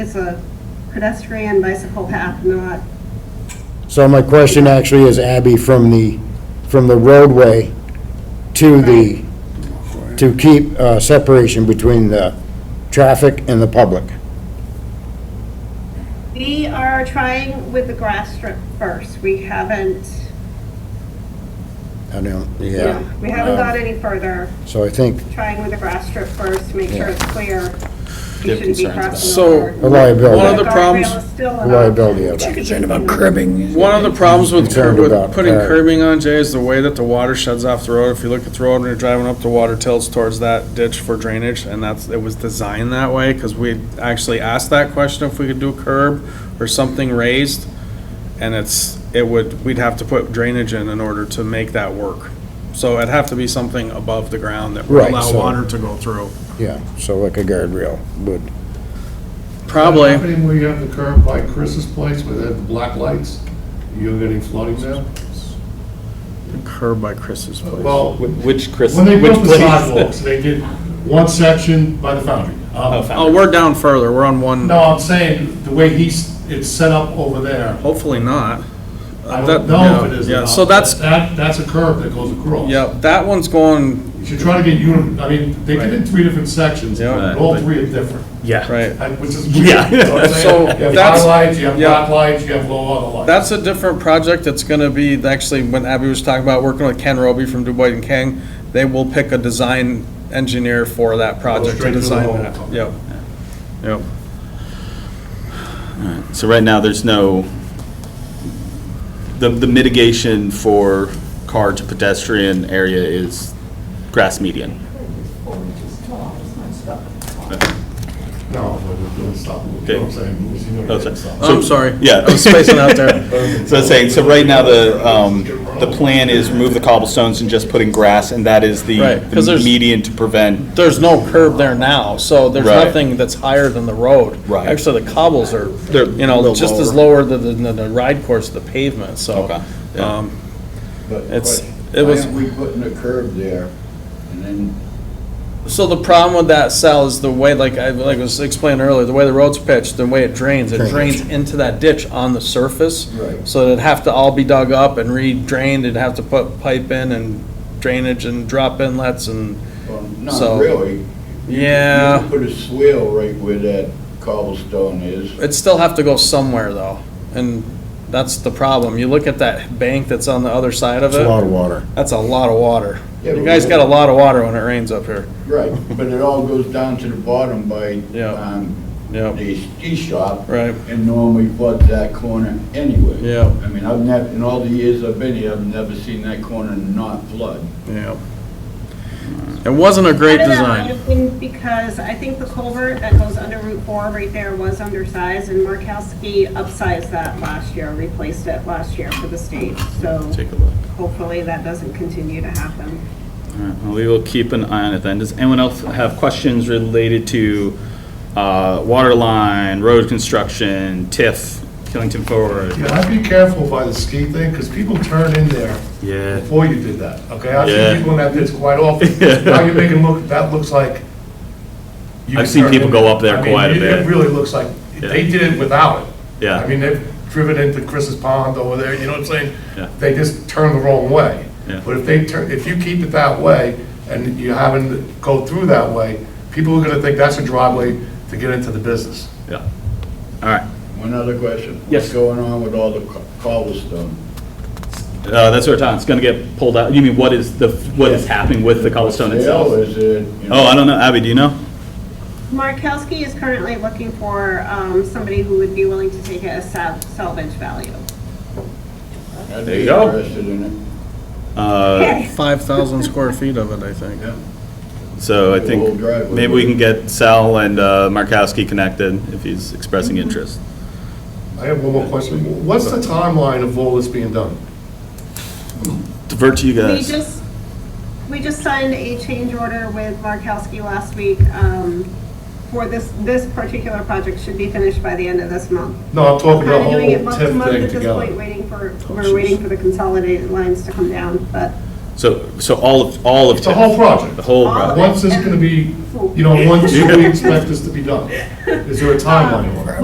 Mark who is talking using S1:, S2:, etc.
S1: It's a pedestrian bicycle path, not,
S2: So my question actually is, Abby, from the, from the roadway to the, to keep uh, separation between the traffic and the public.
S1: we are trying with the grass strip first. We haven't,
S2: I don't, yeah.
S1: yeah, we haven't
S2: Uh,
S1: got any further,
S2: So I think
S1: trying with the grass strip first to make sure it's clear.
S3: Yeah,
S1: You shouldn't be
S3: concerns about-
S1: crossing
S4: So,
S1: over.
S2: the liability.
S4: One of the
S1: Guardrail
S4: problems-
S1: is still an
S2: liability
S1: option.
S2: of that.
S5: Concerned about cribbing.
S4: One of the problems with curb,
S2: Concerned about
S4: with putting
S2: that.
S4: curbing on, Jay, is the way that the water sheds off the road. If you look at the road when you're driving up, the water tilts towards that ditch for drainage, and that's, it was designed that way, because we actually asked that question if we could do a curb or something raised, and it's, it would, we'd have to put drainage in in order to make that work. So it'd have to be something above the ground that would
S2: Right,
S4: allow
S2: so-
S4: water to go through.
S2: Yeah, so like a guardrail would.
S4: Probably.
S6: What's happening where you have the curb by Chris's place where they have the black lights? You're getting flooding now?
S4: Curb by Chris's place.
S6: Well,
S3: Which Chris,
S6: when they
S3: which
S6: built the
S3: place?
S6: sidewalks, they did one section by the foundry.
S3: Oh,
S6: Um,
S3: found
S4: Oh,
S3: it.
S4: we're down further. We're on one,
S6: No, I'm saying, the way he's, it's set up over there,
S4: hopefully not.
S6: I
S4: That-
S6: don't know if
S4: yeah,
S6: it is or
S4: yeah,
S6: not,
S4: so
S6: but
S4: that's-
S6: That, that's a curb that goes across.
S4: Yep, that one's going
S6: You should try to get uni, I mean, they did it in three different sections,
S4: Yeah.
S6: and all three are different,
S5: Yeah.
S4: Right.
S6: I- which is weird.
S5: Yeah.
S6: You know what I'm saying?
S4: So
S6: You have
S4: that's-
S6: high lights, you have
S4: yeah.
S6: black lights, you have low other lights.
S4: That's a different project. It's gonna be, actually, when Abby was talking about working with Ken Roby from Dubois and Kang, they will pick a design engineer for that project
S6: straight
S4: to
S6: to the
S4: design
S6: hole.
S4: that. Yep. Yep.
S3: So right now, there's no, the, the mitigation for car to pedestrian area is grass median.
S6: No, but don't stop, you know what I'm saying? You know what
S3: Oh,
S6: I'm saying?
S3: so-
S4: I'm sorry.
S3: Yeah, I was spacing out there. So I was saying, so right now, the, um, the plan is remove the cobblestones and just put in grass, and that is the
S4: Right, 'cause
S3: the
S4: there's-
S3: median to prevent,
S4: There's no curb there now, so there's
S3: Right.
S4: nothing that's higher than the road.
S3: Right.
S4: Actually, the cobbles are,
S3: They're
S4: you know,
S3: little
S4: just as lower than the, the ride course, the pavement, so.
S3: Okay, yeah.
S4: um,
S7: But
S4: It's-
S7: question,
S4: it was-
S7: Why aren't we putting a curb there and then
S4: So the problem with that cell is the way, like I, like I was explaining earlier, the way the road's pitched, the way it drains, it drains into that ditch on the surface.
S7: Right.
S4: So it'd have to all be dug up and re-drained, it'd have to put pipe in and drainage and drop inlets and,
S7: Well,
S4: So-
S7: Not really. You could-
S4: Yeah.
S7: You could put a swale right where that cobblestone is.
S4: it'd still have to go somewhere though. And that's the problem. You look at that bank that's on the other side of
S2: It's a lot
S4: it,
S2: of water.
S4: that's a lot of water.
S7: Yeah,
S4: You
S7: but
S4: guys
S7: we-
S4: got a lot of water when it rains up here.
S7: Right, but it all goes down to the bottom by,
S4: Yeah.
S7: um,
S4: Yeah.
S7: the ski shop.
S4: Right.
S7: And normally floods that corner anyway.
S4: Yeah.
S7: I mean, I've never, in all the years I've been here, I've never seen that corner not flood.
S4: Yeah. It wasn't a great
S1: Part of that
S4: design.
S1: might have been Because I think the culvert that goes under Route 4 right there was undersized, and Markowski upsized that last year, replaced it last year for the state, so
S3: take a look.
S1: hopefully that doesn't continue to happen.
S3: All right, well, we will keep an eye on it then. Does anyone else have questions related to uh, water line, road construction, TIF, Killington Forward?
S6: Yeah, I'd be careful by the ski thing, because people turn in there
S3: Yeah.
S6: before you did that, okay? I've
S3: Yeah.
S6: seen people in that ditch quite often. Now you're making look, that looks like. you
S3: I've seen
S6: turned
S3: people
S6: in
S3: go up there
S6: I mean,
S3: quite a
S6: it-
S3: bit.
S6: It really looks like, they
S3: Yeah.
S6: did it without it.
S3: Yeah.
S6: I mean, they've driven into Chris's pond over there, you know what I'm saying?
S3: Yeah.
S6: They just turn the wrong way.
S3: Yeah.
S6: But if they turn, if you keep it that way, and you haven't go through that way, people are gonna think that's a driveway to get into the business.
S3: Yeah. All right.
S7: One other question.
S3: Yes.
S7: What's going on with all the co- cobblestone?
S3: Uh, That's what we're talking, it's going to get pulled out. You mean, what is the, what is happening with the cobblestone
S7: Swale
S3: itself?
S7: is it? you know-
S3: Oh, I don't know. Abby, do you know?
S1: Markowski is currently looking for um, somebody who would be willing to take it as sal- salvage value.
S7: I'd
S3: There you
S7: be
S3: go.
S7: interested in it.
S3: Uh,
S4: Five thousand square feet of it, I think.
S3: So I think
S7: Old driveway.
S3: maybe we can get Sal and uh, Markowski connected if he's expressing
S1: Mm-hmm.
S3: interest.
S6: I have one more question. What's the timeline of all this being done?
S3: Divert to you
S1: We
S3: guys.
S1: just, we just signed a change order with Markowski last week um, for this, this particular project should be finished by the end of this month.
S6: No, I'm
S1: Kind
S6: talking about
S1: of
S6: the whole
S1: doing it month to
S6: TIF
S1: month
S6: thing
S1: at this
S6: together. Oh,
S1: point, waiting for, we're waiting for the consolidated lines to come down, but
S3: So, so all of, all of.
S6: It's the
S3: TIF.
S6: whole project.
S3: The whole project.
S6: Once is gonna be, you know, once do we expect this to be done? Is there a timeline on it?